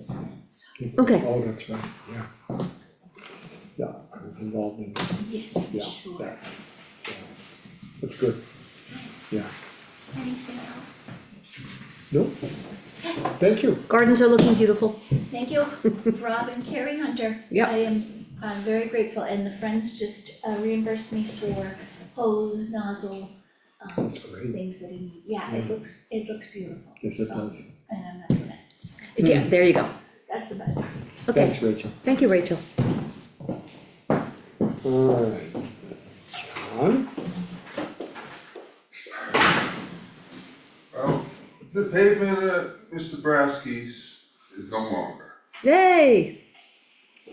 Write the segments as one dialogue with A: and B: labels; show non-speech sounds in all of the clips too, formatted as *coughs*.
A: something, so,
B: Okay.
C: Oh, that's right, yeah. Yeah, I was involved in
A: yes, I'm
C: Yeah,
A: sure.
C: that, so, that's good. Yeah,
A: Anything else?
C: no, thank you.
B: Gardens are looking beautiful.
A: Thank you, Rob and Carrie Hunter.
B: Yep.
A: I am, I'm very grateful, and the Friends just uh, reimbursed me for hose, nozzle, um,
C: That's great.
A: things that I need, yeah, it looks, it looks beautiful.
C: Mm-hmm. Yes, it
A: so,
C: does.
A: And I'm not gonna, so
B: Yeah, there you go.
A: that's the best part.
B: Okay,
C: Thanks, Rachel.
B: thank you, Rachel.
C: Alright, John,
D: Well, the pavement at Mr. Brasky's is no longer.
B: Yay,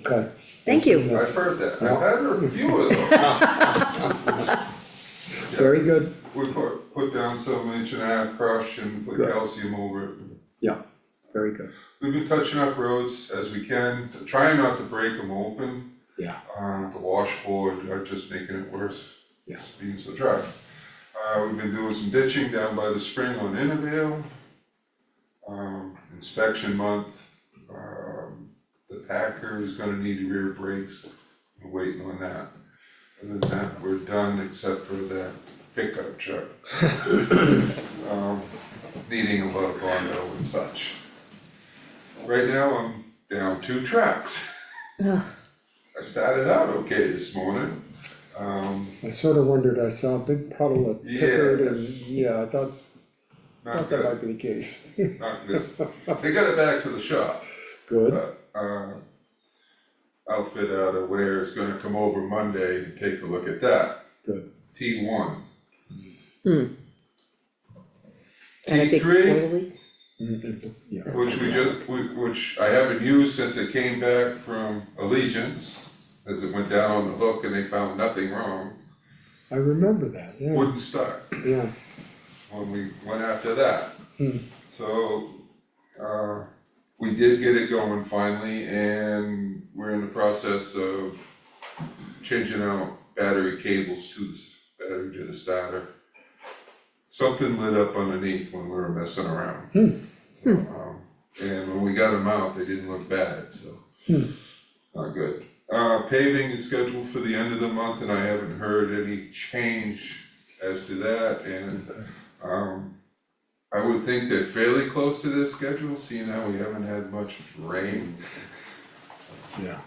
C: okay.
B: Thank you.
D: I've heard that, I've had a few of them.
C: Very good,
D: We put, put down some inch and a half crush and put
C: Good.
D: calcium over it.
C: yeah, very good,
D: We've been touching up roads as we can, trying not to break them open.
C: yeah,
D: Uh, the washboard are just making it worse,
C: Yeah.
D: It's being so dry. Uh, we've been doing some ditching down by the spring on Innervale. Um, inspection month, um, the packer is gonna need rear brakes, we're waiting on that. Other than that, we're done except for that pickup truck. *coughs* Um, needing a lot of Bondo and such. Right now, I'm down two tracks.
B: Ugh.
D: I started out okay this morning, um,
C: I sort of wondered, I saw a big puddle of
D: Yeah,
C: Pickard and,
D: that's-
C: yeah, I thought,
D: not
C: thought that
D: good,
C: might be the case.
D: not good. They got it back to the shop,
C: Good,
D: but, uh, outfit out of Ware is gonna come over Monday and take a look at that,
C: good,
D: T one.
B: And a big
D: T3?
B: oily-
D: Mm-hmm.
C: Mm, yeah,
D: Which we just, we- which I haven't used since it came back from Allegiance, as it went down on the hook and they found nothing wrong,
C: I remember that, yeah,
D: wouldn't start
C: yeah,
D: when we went after that.
C: Hmm.
D: So, uh, we did get it going finally and we're in the process of changing out battery cables to the s- battery to the starter. Something lit up underneath when we were messing around. So, um, And when we got them out, they didn't look bad, so. Not good. Uh, paving is scheduled for the end of the month and I haven't heard any change as to that and, um, I would think they're fairly close to their schedule, seeing how we haven't had much rain.
C: yeah.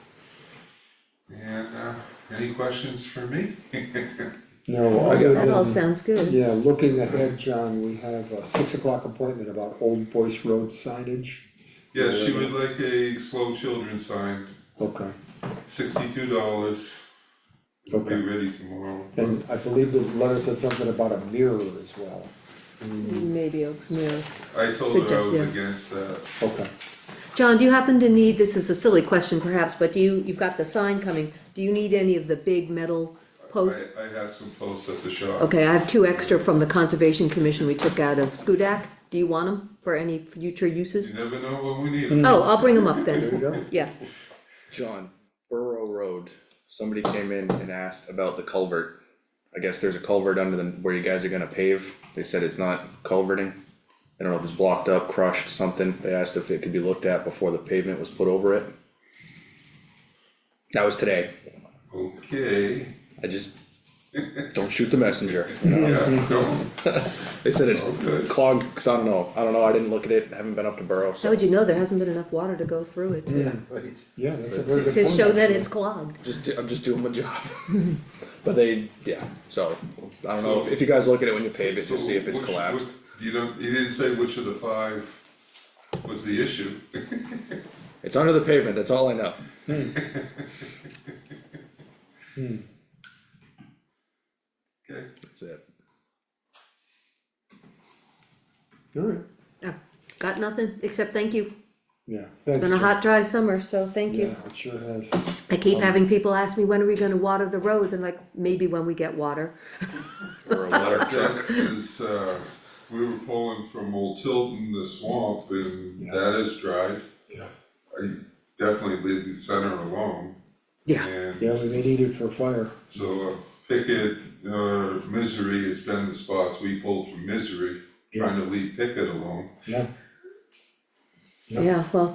D: And, uh, any questions for me? *laughs*
C: No, other
B: That all
C: than,
B: sounds good.
C: Yeah, looking ahead, John, we have a six o'clock appointment about Old Voice Road signage.
D: Yeah, she would like a slow children sign,
C: Okay.
D: sixty-two dollars. It'll be
C: Okay.
D: ready tomorrow.
C: And I believe the letter said something about a mirror as well.
B: Maybe, a- yeah.
D: I told her I
B: Suggest-
D: was
B: yeah.
D: against that.
C: Okay,
B: John, do you happen to need, this is a silly question perhaps, but do you, you've got the sign coming, do you need any of the big metal posts?
D: I, I have some posts at the shop.
B: Okay, I have two extra from the Conservation Commission we took out of Skudak. Do you want them for any future
D: You
B: uses?
D: never know when we need them.
B: Oh, I'll bring them up
C: Mm. there you
B: then,
C: go.
B: yeah.
E: John, Borough Road, somebody came in and asked about the culvert. I guess there's a culvert under the, where you guys are gonna pave, they said it's not culverting. I don't know if it's blocked up, crushed, something, they asked if it could be looked at before the pavement was put over it. That was today,
D: Okay,
E: I just, don't shoot the messenger, you know?
D: yeah, no,
E: they said it's
D: Okay.
E: clogged, 'cause I don't know, I don't know, I didn't look at it, haven't been up to Borough,
B: How
E: so.
B: would you know, there hasn't been enough water to go through it to,
C: yeah, that's a very good point.
B: to show that it's clogged.
E: Just, do- I'm just doing my job, *laughs* but they, yeah, so, I don't know, if you guys look at it when you pave it, just see if it's
D: So which-
E: collapsed.
D: which- You don't, you didn't say which of the five was the issue. *laughs*
E: It's under the pavement, that's all I know.
D: Okay,
E: That's it.
C: Alright,
B: Oh, Got nothing, except thank you.
C: yeah, thanks.
B: Been a
C: John.
B: hot, dry summer, so thank you.
C: Yeah, Um, it sure has.
B: I keep having people ask me, when are we gonna water the roads? And like, maybe when we get water.
E: Or a water truck.
C: *laughs*
D: that is, uh, we were pulling from Old Tilton, the swamp, and that is dry.
C: Yeah.
D: I definitely leave the center alone,
B: Yeah,
D: and
C: Yeah, we may need it for fire.
D: so uh, Pickett, uh, Misery has been the spots we pulled from Misery, trying to leave Pickett alone.
C: Yeah.
B: yeah, well,